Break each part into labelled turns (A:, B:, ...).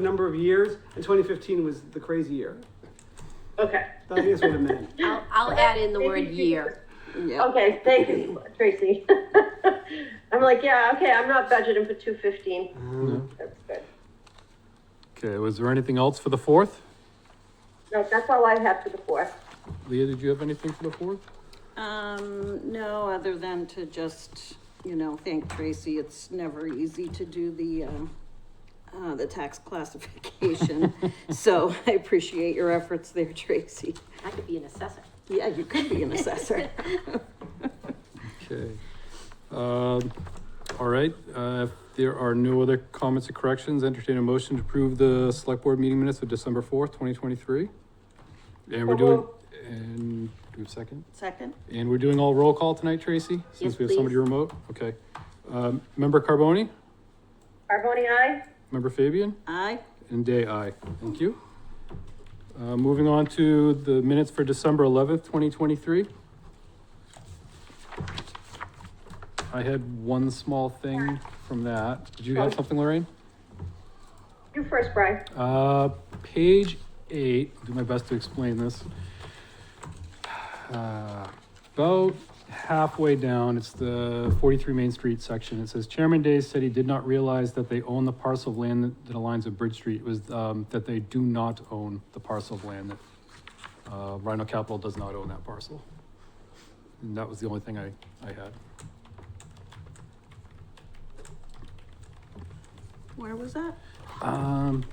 A: number of years, and 2015 was the crazy year.
B: Okay.
A: I think that's what it meant.
C: I'll, I'll add in the word year. Yeah.
B: Okay, thank you, Tracy. I'm like, yeah, okay, I'm not budgeting for two fifteen. That's good.
D: Okay, was there anything else for the fourth?
B: No, that's all I have for the fourth.
D: Leah, did you have anything for the fourth?
E: Um, no, other than to just, you know, thank Tracy. It's never easy to do the, uh, uh, the tax classification. So I appreciate your efforts there, Tracy.
C: I could be an assessor.
E: Yeah, you could be an assessor.
D: Okay. Um, all right, uh, if there are no other comments or corrections, entertain a motion to approve the select board meeting minutes of December fourth, twenty twenty-three. And we're doing, and, do we have a second?
E: Second?
D: And we're doing all roll call tonight, Tracy? Since
C: Yes,
D: we have somebody
C: please.
D: remote, okay. Um, member Carboni,
B: Carboni, aye?
D: member Fabian?
E: Aye.
D: And day I. Thank you. Uh, moving on to the minutes for December eleventh, twenty twenty-three. I had one small thing from that. Did you have something, Lorraine?
B: You first, Brian.
D: Uh, page eight, do my best to explain this. Uh, About halfway down, it's the forty-three Main Street section. It says Chairman Day said he did not realize that they own the parcel of land that- that aligns with Bridge Street. It was, um, that they do not own the parcel of land that, uh, Rhino Capital does not own that parcel. And that was the only thing I, I had.
E: Where was that?
D: Um,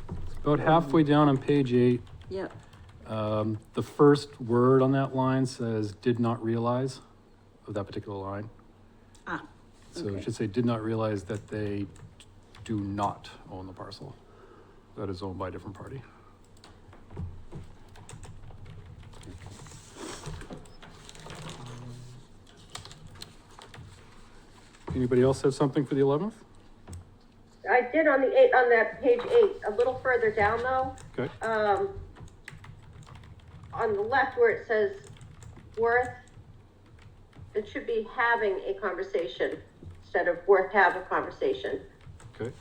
D: about halfway down on page eight,
E: Yep.
D: Um, the first word on that line says did not realize of that particular line.
E: Ah,
D: So
E: okay.
D: it should say did not realize that they do not own the parcel. That is owned by a different party. Um, Anybody else have something for the eleventh?
B: I did on the eight, on that page eight, a little further down though,
D: Okay,
B: um, on the left where it says worth, it should be having a conversation instead of worth have a conversation.
D: okay.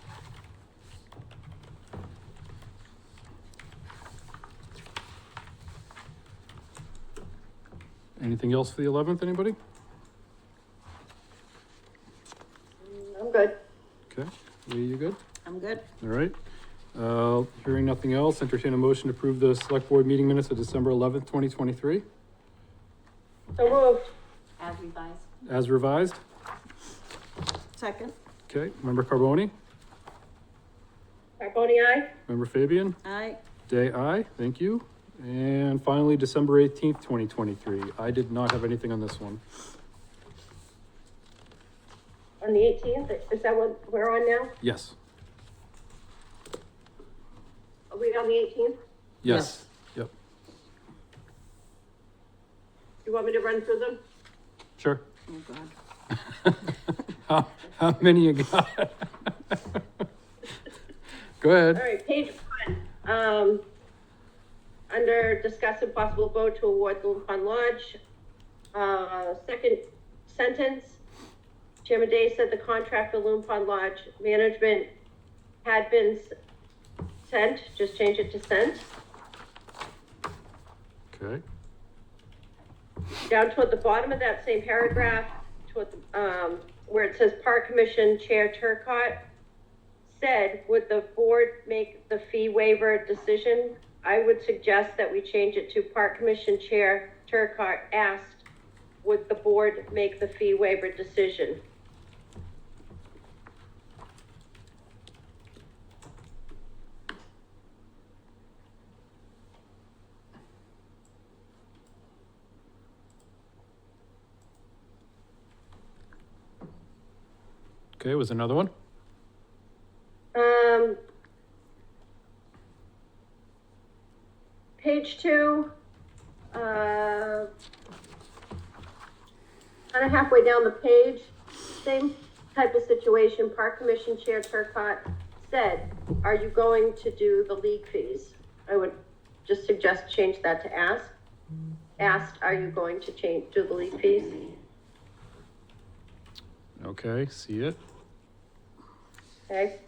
D: Anything else for the eleventh, anybody?
B: I'm good.
D: Okay, Lee, you good?
E: I'm good.
D: All right. Uh, hearing nothing else, entertain a motion to approve the select board meeting minutes of December eleventh, twenty twenty-three,
B: So moved.
C: As revised.
D: as revised.
E: Second?
D: Okay, member Carboni,
B: Carboni, aye?
D: member Fabian,
E: Aye.
D: day I, thank you. And finally, December eighteenth, twenty twenty-three. I did not have anything on this one.
B: On the eighteenth, is that what we're on now?
D: Yes,
B: Are we on the eighteenth?
D: yes, yep,
B: You want me to run through them?
D: sure.
E: Oh, God.
D: How, how many you got? Go
B: All
D: ahead.
B: right, page one, um, under discuss and possible vote to award the Lupin Lodge, uh, second sentence. Chairman Day said the contract for Lupin Lodge management had been s- sent, just change it to sent.
D: Okay,
B: down toward the bottom of that same paragraph, toward the, um, where it says Park Commission Chair Turcott said, would the board make the fee waiver decision? I would suggest that we change it to Park Commission Chair Turcott asked, would the board make the fee waiver decision?
D: okay, was there another one?
B: Um, page two, uh, kind of halfway down the page, same type of situation. Park Commission Chair Turcott said, "Are you going to do the league fees?" I would just suggest change that to ask. Asked, "Are you going to change do the league fees?"
D: Okay, see it.
B: Okay.